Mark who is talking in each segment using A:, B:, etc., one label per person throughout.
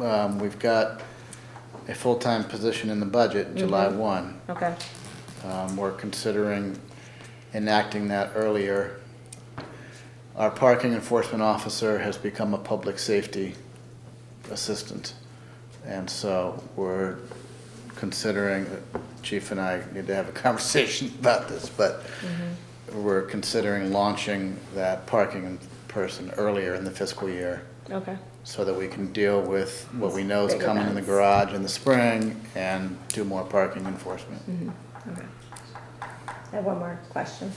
A: um, we've got a full-time position in the budget, July one.
B: Okay,
A: Um, we're considering enacting that earlier. Our parking enforcement officer has become a public safety assistant. And so we're considering, Chief and I need to have a conversation about this, but we're considering launching that parking person earlier in the fiscal year
B: okay.
A: so that we can deal with what we know is
B: Big
A: coming in the
B: events.
A: garage in the spring and do more parking enforcement.
B: Mm-hmm. Okay. I have one more question.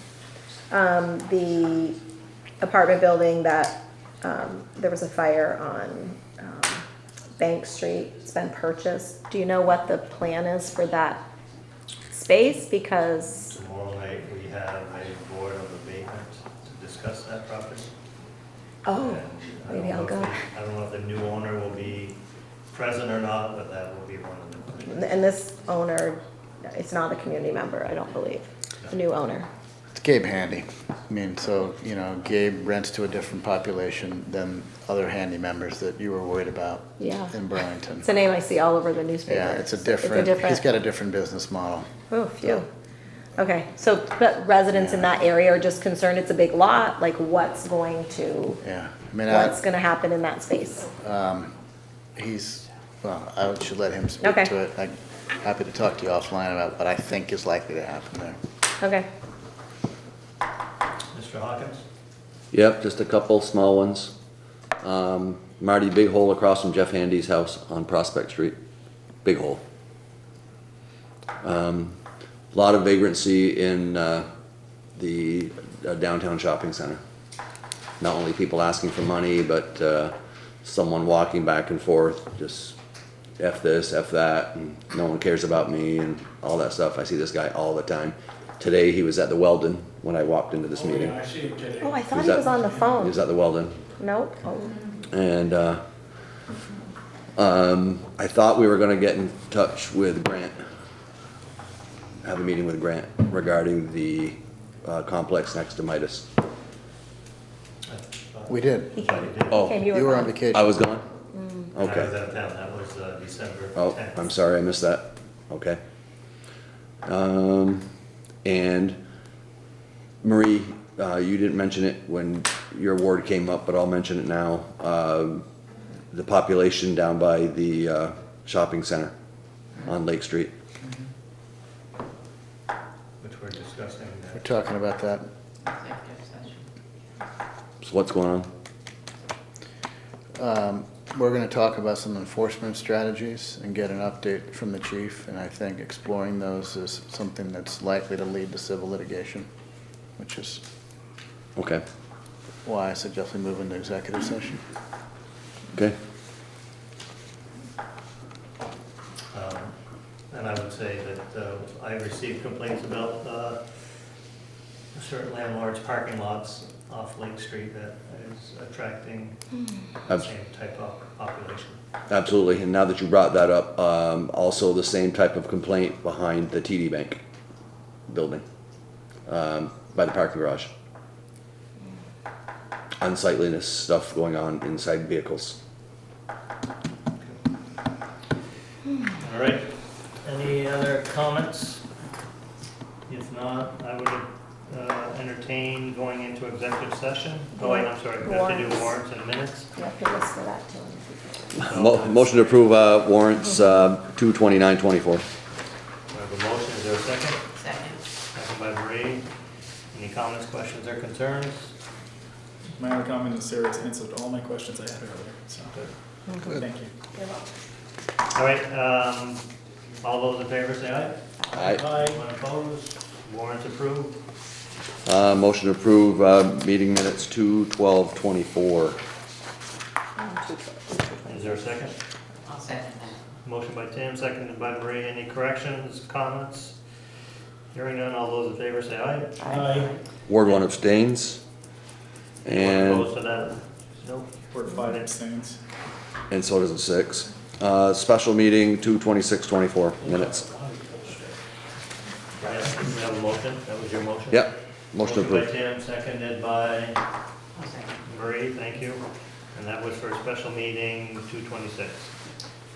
B: Um, the apartment building that, um, there was a fire on, um, Bank Street, it's been purchased. Do you know what the plan is for that space? Because,
C: Tomorrow night, we have a board of abatement to discuss that property.
B: oh,
C: And I don't
B: maybe I'll
C: know
B: go.
C: if the- I don't know if the new owner will be present or not, but that will be one of the,
B: And this owner, it's not a community member, I don't believe, the new owner.
A: It's Gabe Handy. I mean, so, you know, Gabe rents to a different population than other handy members that you were worried about
B: Yeah.
A: in Burlington.
B: It's a name I see all over the newspaper.
A: Yeah, it's a different, he's got a different business model.
B: Oh, phew. Okay, so but residents in that area are just concerned it's a big lot, like what's going to,
A: Yeah. I mean,
B: what's
A: I,
B: gonna happen in that space?
A: he's, well, I should let him speak
B: Okay.
A: to it. I'm happy to talk to you offline about what I think is likely to happen there.
B: Okay,
C: Mr. Hawkins?
D: Yep, just a couple small ones. Um, Marty, big hole across from Jeff Handy's house on Prospect Street. Big hole. Um, lot of vagrancy in, uh, the uh, downtown shopping center. Not only people asking for money, but, uh, someone walking back and forth, just F this, F that, and no one cares about me and all that stuff. I see this guy all the time. Today, he was at the Weldon when I walked into this
E: Oh,
D: meeting.
E: yeah, I see it today.
B: oh, I thought
D: Is
B: he
D: that-
B: was on the
D: He
B: phone.
D: was at the Weldon,
B: Nope, oh,
D: and uh, um, I thought we were gonna get in touch with Grant, have a meeting with Grant regarding the uh, complex next to Midas.
A: We did.
B: he came,
D: Oh,
B: came,
A: You were on vacation.
D: I was gone.
B: Mm.
C: I was
D: Okay.
C: out of town, that was uh, December
D: Oh,
C: 10th.
D: I'm sorry, I missed that. Okay. Um, and Marie, uh, you didn't mention it when your award came up, but I'll mention it now. Um, the population down by the, uh, shopping center on Lake Street.
C: Which we're discussing. uh,
A: We're talking about that.
F: executive session.
D: So what's going on?
A: Um, We're gonna talk about some enforcement strategies and get an update from the chief, and I think exploring those is something that's likely to lead to civil litigation, which is
D: Okay,
A: why I suggest we move into executive session.
D: okay.
C: Um, And I would say that uh, I received complaints about uh, certain landlords' parking lots off Lake Street that is attracting the
D: Abs-
C: same type of population.
D: Absolutely. And now that you brought that up, um, also the same type of complaint behind the TD Bank building, um, by the parking garage. Unsightliness stuff going on inside vehicles.
C: All right, any other comments? If not, I would uh, entertain going into executive session. Oh, wait, I'm sorry, we have to do warrants in minutes.
B: You have to listen to that to him.
C: Oh,
D: Mo- motion to approve, uh, warrants, uh, two twenty-nine twenty-four.
C: I have a motion, is there a second?
F: Second.
C: Second by Marie. Any comments, questions, or concerns?
E: My only comment is Sarah's answered all my questions I had earlier, so, thank you.
C: All right, um, all those in favor say aye.
D: Aye.
C: Anyone opposed? Warrants approved.
D: Uh, motion to approve, uh, meeting minutes two twelve twenty-four.
C: Is there a second?
F: I'll second that.
C: Motion by Tim, seconded by Marie. Any corrections, comments? Hearing none, all those in favor say aye.
E: Aye.
D: Ward one abstains.
C: Anyone
D: And
C: Opposed to that? Nope.
E: Word five abstains.
D: And so does the six. Uh, special meeting, two twenty-six, twenty-four minutes.
C: Right, we have a motion, that was your motion?
D: Yep,
C: Motion
D: motion
C: by
D: approved.
C: Tim, seconded by
F: I'll second.
C: Marie, thank you. And that was for a special meeting, two twenty-six.